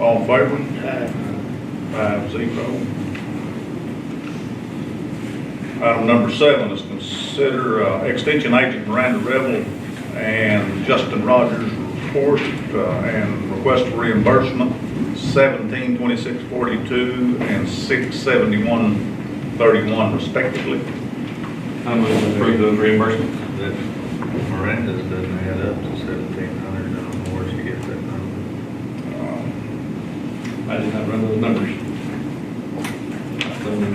All in favor? Aye. Five zero. Item number seven is consider uh, Extension Agent Miranda Revel and Justin Rogers report uh, and request for reimbursement seventeen twenty-six forty-two and six seventy-one thirty-one respectively. I'm going to approve those reimbursements. That Miranda's doesn't add up to seventeen hundred, I don't know where she gets that number. Um, I did not run those numbers.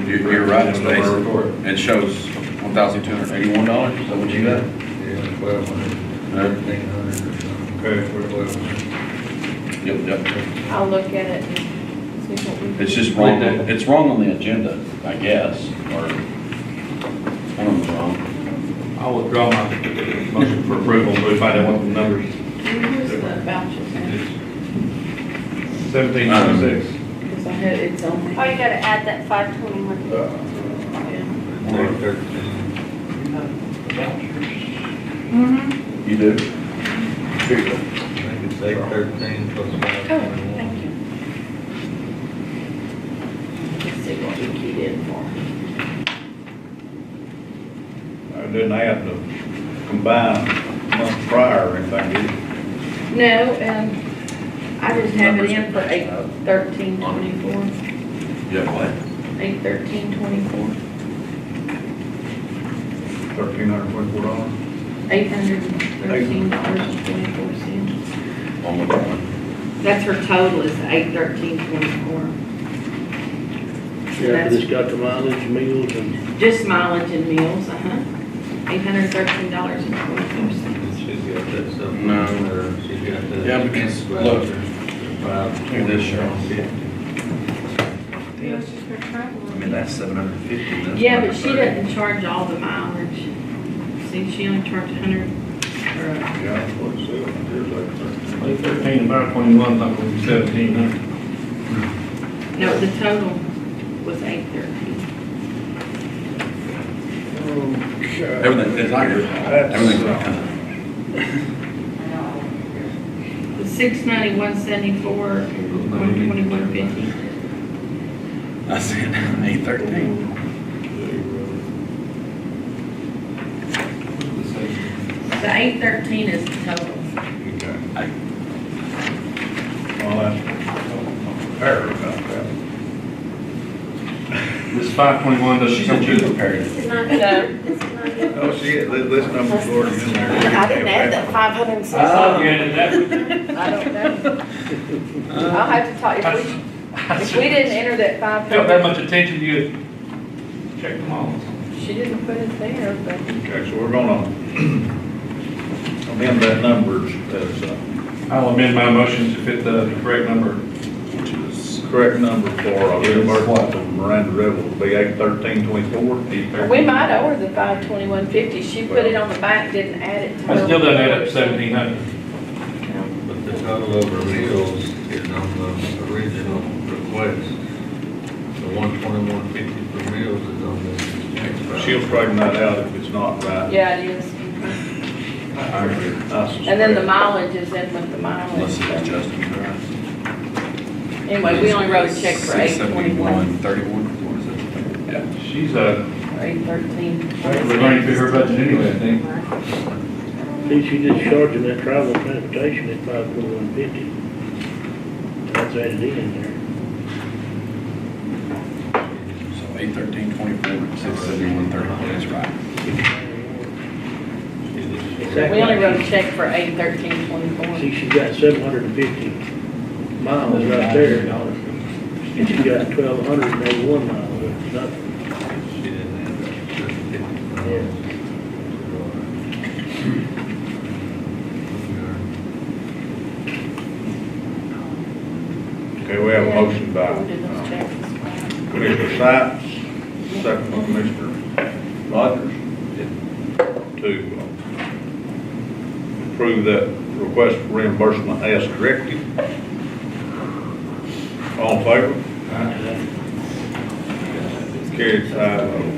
You- you're right, Number Stacy. report. It shows one thousand two hundred eighty-one dollars, is that what you got? Yeah, twelve hundred, Huh? thirteen hundred or something. Okay, Or 1200. Yep, yep. I'll look at it and see what we. It's just wrong, Right there. it's wrong on the agenda, I guess, or, I don't know, wrong. I will withdraw my motion for approval, but if I don't want the numbers. Here's the vouchers, Seventeen Um, ninety-six. because I had, it's on. Oh, you gotta add that five twenty-one. uh, Mm-hmm. Or thirteen. You do? Here you I go. think it's eight thirteen plus five Oh, twenty-one. thank you. Let's see what we keyed in for. I didn't add the combined month prior or anything, did you? No, um, I just have it in for eight thirteen twenty-four, Uh, Yeah, what? eight thirteen twenty-four, Thirteen hundred twenty-four dollars? eight hundred and thirteen dollars and twenty-four cents. On the one. That's her total is eight thirteen twenty-four, Yeah, but it's got the mileage, meals, and just mileage and meals, uh-huh, eight hundred and thirteen dollars and twenty-four cents. And She's got that stuff. No. or She's got that. Yeah, because, look, Five. look at this, Cheryl. It was just for I travel. mean, that's seven hundred and fifty. Yeah, but she doesn't charge all the mileage. See, she only charged a hundred, or, Yeah, that's what it said. Here's like thirteen. Eight thirteen and five twenty-one, not going to seventeen hundred. no, the total was eight thirteen. Oh, Everything, it's not good. That's, Everything's uh, not The six ninety-one seventy-four, one twenty-one fifty. good. I said eight thirteen. The eight thirteen is the total. Okay. I- Well, that's, fair about that. This five twenty-one, does she She come said to you the prepared it. It's not good, it's not good. Oh, she, this this number's already in there. I didn't add that five hundred and six. Oh, I yeah, that, don't know. I'll have to talk, if we, if we didn't enter that five don't pay hundred, much attention, you check them all. she didn't put it there, but. Okay, so we're gonna amend that number as a I'll amend my motion to fit the correct number. Which is, correct number for a reimbursement from Miranda Revel, will be eight thirteen twenty-four. We might owe her the five twenty-one fifty, she put it on the back, didn't add it. to I her. still don't add up seventeen hundred. But the total over meals is on the original request. The one twenty-one fifty for meals is on the next file. She'll straighten that out if it's not right. Yeah, it is. I agree. Oh, And then the mileage is in with the unless it's mileage. Justin. Anyway, we only wrote a check for eight twenty-one, Thirty-one, what is it? Yeah. She's, uh, or eight thirteen. we're running through her budget anyway, I think. see, she just charging that travel transportation at five twenty-one fifty. That's added in there. So eight thirteen twenty-four, six seventy-one thirty-one, that's right. We only wrote a check for eight thirteen twenty-four. See, she's got seven hundred and fifty miles right there, and she's got twelve hundred and eighty-one miles, that's nothing. She didn't add that seven fifty. Okay, we have a motion by uh, Commissioner Sykes, second by Commissioner Rogers, to uh, approve that request for reimbursement as corrected. All in favor? Carried five oh.